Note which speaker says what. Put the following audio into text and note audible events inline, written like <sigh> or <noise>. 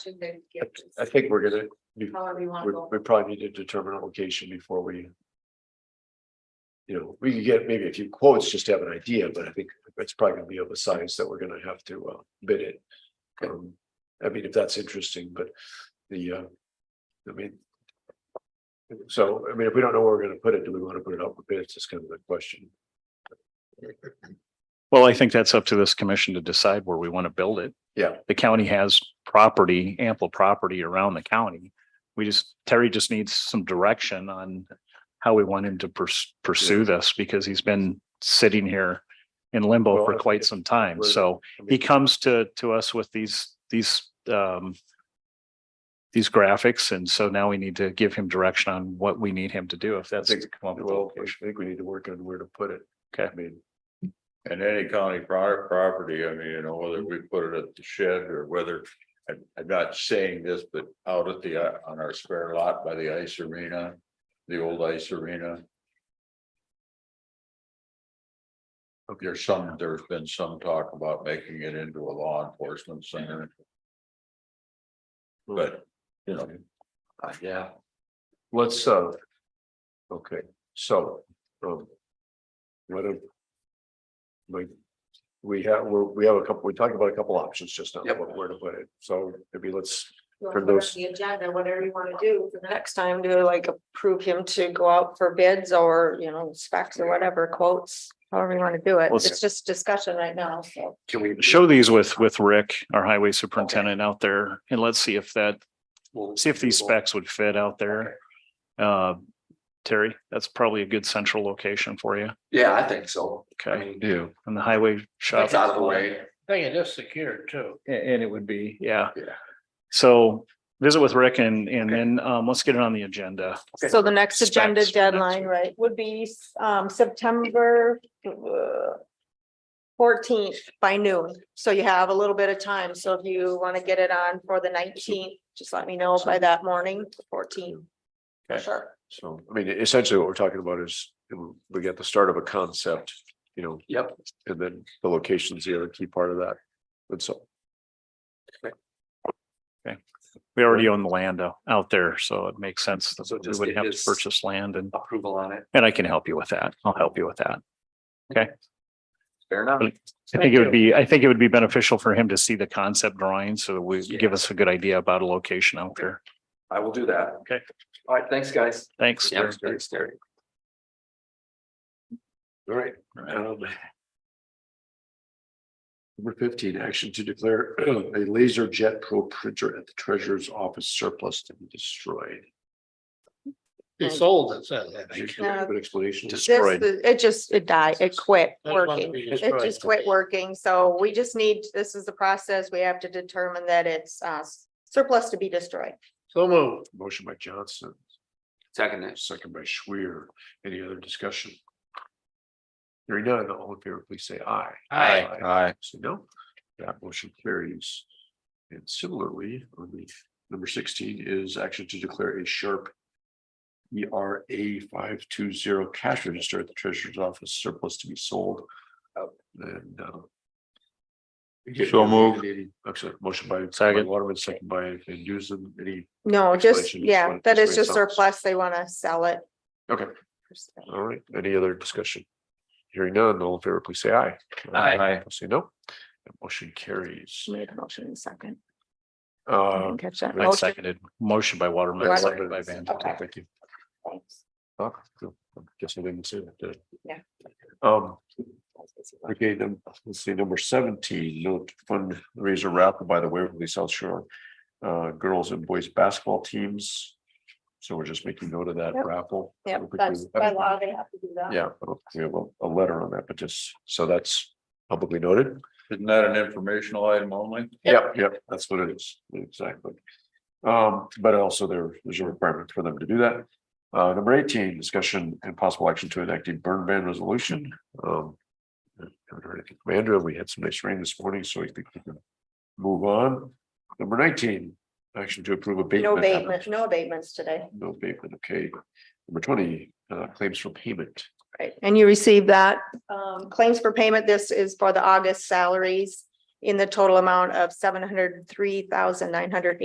Speaker 1: to then
Speaker 2: I
Speaker 1: get
Speaker 2: I
Speaker 1: this,
Speaker 2: think we're gonna, we,
Speaker 1: however you want
Speaker 2: we
Speaker 1: to go.
Speaker 2: we probably need to determine a location before we. You know, we could get maybe a few quotes just to have an idea, but I think it's probably gonna be of a size that we're gonna have to uh bid it. Um, I mean, if that's interesting, but the uh, I mean. So, I mean, if we don't know where we're gonna put it, do we wanna put it up for bids? That's kind of the question.
Speaker 3: Well, I think that's up to this commission to decide where we want to build it.
Speaker 2: Yeah.
Speaker 3: The county has property, ample property around the county. We just, Terry just needs some direction on how we want him to pers- pursue this because he's been sitting here in limbo
Speaker 2: Well, I
Speaker 3: for
Speaker 2: think
Speaker 3: quite
Speaker 2: it's-
Speaker 3: some time. So
Speaker 2: I
Speaker 3: he
Speaker 2: mean,
Speaker 3: comes to, to us with these, these, um, these graphics. And so now we need to give him direction on what we need him to do if that's.
Speaker 2: think-
Speaker 3: to come up with a
Speaker 2: Well, I
Speaker 3: location.
Speaker 2: think we need to work on where to put it.
Speaker 3: Okay.
Speaker 2: I mean,
Speaker 4: And any county pro- property, I mean, you know, whether we put it at the shed or whether, I, I'm not saying this, but out at the, uh, on our spare lot by the ice arena. The old ice arena. There's some, there's been some talk about making it into a law enforcement center. But, you know.
Speaker 2: Uh, yeah. Let's, uh. Okay, so, um. What if? Like, we have, we're, we have a couple, we talked about a couple options just now, what- where to put it, so maybe let's,
Speaker 1: You wanna
Speaker 2: for
Speaker 1: put it on
Speaker 2: those-
Speaker 1: The agenda, whatever you want to do for the next time, to like approve him to go out for bids or, you know, specs or whatever quotes, however you want to do it.
Speaker 3: Well,
Speaker 1: It's just discussion right now, so.
Speaker 2: can we?
Speaker 3: show these with, with Rick, our highway superintendent out there, and let's see if that,
Speaker 2: we'll-
Speaker 3: see if these specs would fit out there. Uh, Terry, that's probably a good central location for you.
Speaker 5: Yeah, I think so. I
Speaker 3: Okay,
Speaker 5: mean,
Speaker 2: Yeah,
Speaker 3: and the highway shop.
Speaker 5: it's out of the way.
Speaker 6: Thing it is secured too.
Speaker 3: A- And it would be, yeah.
Speaker 5: Yeah.
Speaker 3: So visit with Rick and, and then, um, let's get it on the agenda.
Speaker 1: So the next
Speaker 3: Specs
Speaker 1: agenda
Speaker 3: for next
Speaker 1: deadline,
Speaker 3: week.
Speaker 1: right, would be um September. uh, Fourteenth by noon, so you have a little bit of time, so if you want to get it on for the nineteenth, just let me know by that morning, fourteen. For
Speaker 3: Okay.
Speaker 1: sure,
Speaker 2: so, I mean, essentially what we're talking about is, we got the start of a concept, you know.
Speaker 5: Yep.
Speaker 2: And then the location's the other key part of that, and so.
Speaker 3: We already own the land out- out there, so it makes sense
Speaker 5: So
Speaker 3: that we
Speaker 5: just
Speaker 3: would
Speaker 5: get
Speaker 3: have to
Speaker 5: his-
Speaker 3: purchase land and,
Speaker 5: Approval on it.
Speaker 3: and I can help you with that. I'll help you with that.
Speaker 5: Fair enough.
Speaker 3: I think it would be, I think it would be beneficial for him to see the concept drawing so that we give us a good idea about a location out there.
Speaker 5: I will do that.
Speaker 3: Okay.
Speaker 5: All right, thanks, guys.
Speaker 3: Thanks. Terry.
Speaker 5: Thanks, Terry.
Speaker 2: All right. um, Number fifteen, action to declare <clears throat> a laser jet pro printer at the treasurer's office surplus to be destroyed.
Speaker 6: He sold it, said that.
Speaker 2: Is there An explanation.
Speaker 1: this, is- it just, it died, it quit
Speaker 6: That's one to
Speaker 1: working.
Speaker 6: be
Speaker 1: It
Speaker 6: destroyed.
Speaker 1: just quit working, so we just need, this is the process, we have to determine that it's uh surplus to be destroyed.
Speaker 6: So moved.
Speaker 2: Motion by Johnson,
Speaker 5: Second it.
Speaker 2: second by Schwer. Any other discussion? Hearing none, all in favor, please say aye.
Speaker 6: Aye.
Speaker 4: Aye.
Speaker 2: Say no. That motion carries. And similarly, on the number sixteen is action to declare a sharp. ERA five two zero cash register at the treasurer's office surplus to be sold. And. uh,
Speaker 4: So moved.
Speaker 2: I'm sorry, motion by.
Speaker 3: Second.
Speaker 2: by Waterman, second by Van Dusen, any,
Speaker 1: No, just,
Speaker 2: Installation, just
Speaker 1: yeah,
Speaker 2: wanna
Speaker 1: that is
Speaker 2: destroy
Speaker 1: just
Speaker 2: something.
Speaker 1: surplus, they want to sell it.
Speaker 2: Okay. all right, any other discussion? Hearing none, all in favor, please say aye.
Speaker 5: Aye.
Speaker 2: Opposed, Say no. That Motion carries.
Speaker 1: Made a motion in a second. I
Speaker 2: Uh,
Speaker 1: didn't catch that
Speaker 3: I
Speaker 1: motion.
Speaker 3: seconded motion by Waterman,
Speaker 1: Waterman.
Speaker 3: second by Van. Dusen.
Speaker 1: Okay.
Speaker 2: Thank you.
Speaker 1: Thanks.
Speaker 2: Oh, cool. Guess I didn't see that. did I?
Speaker 1: Yeah.
Speaker 2: Um, okay, then, let's see, number seventeen, note fundraiser raffle by the Waverly South Shore. Uh, girls and boys basketball teams. So we're just making note of that
Speaker 1: Yep.
Speaker 2: raffle. I
Speaker 1: Yeah,
Speaker 2: don't think we-
Speaker 1: that's by law, they have to do that.
Speaker 2: Yeah, I don't think we have a, a letter on that, but just, so that's publicly noted.
Speaker 4: Isn't that an informational item only?
Speaker 2: Yep, yep, that's what it is, exactly. Um, but also there, there's a requirement for them to do that. Uh, number eighteen, discussion and possible action to enact a burn ban resolution, um. Haven't heard anything from Andrew, we had some nice rain this morning, so I think we can move on. Number nineteen, action to approve
Speaker 1: No
Speaker 2: abatement.
Speaker 1: abatement, no abatements today,
Speaker 2: No abatement, okay. Number twenty, uh, claims for payment.
Speaker 1: right? And you received that. Um, claims for payment, this is for the August salaries in the total amount of seven hundred three thousand nine hundred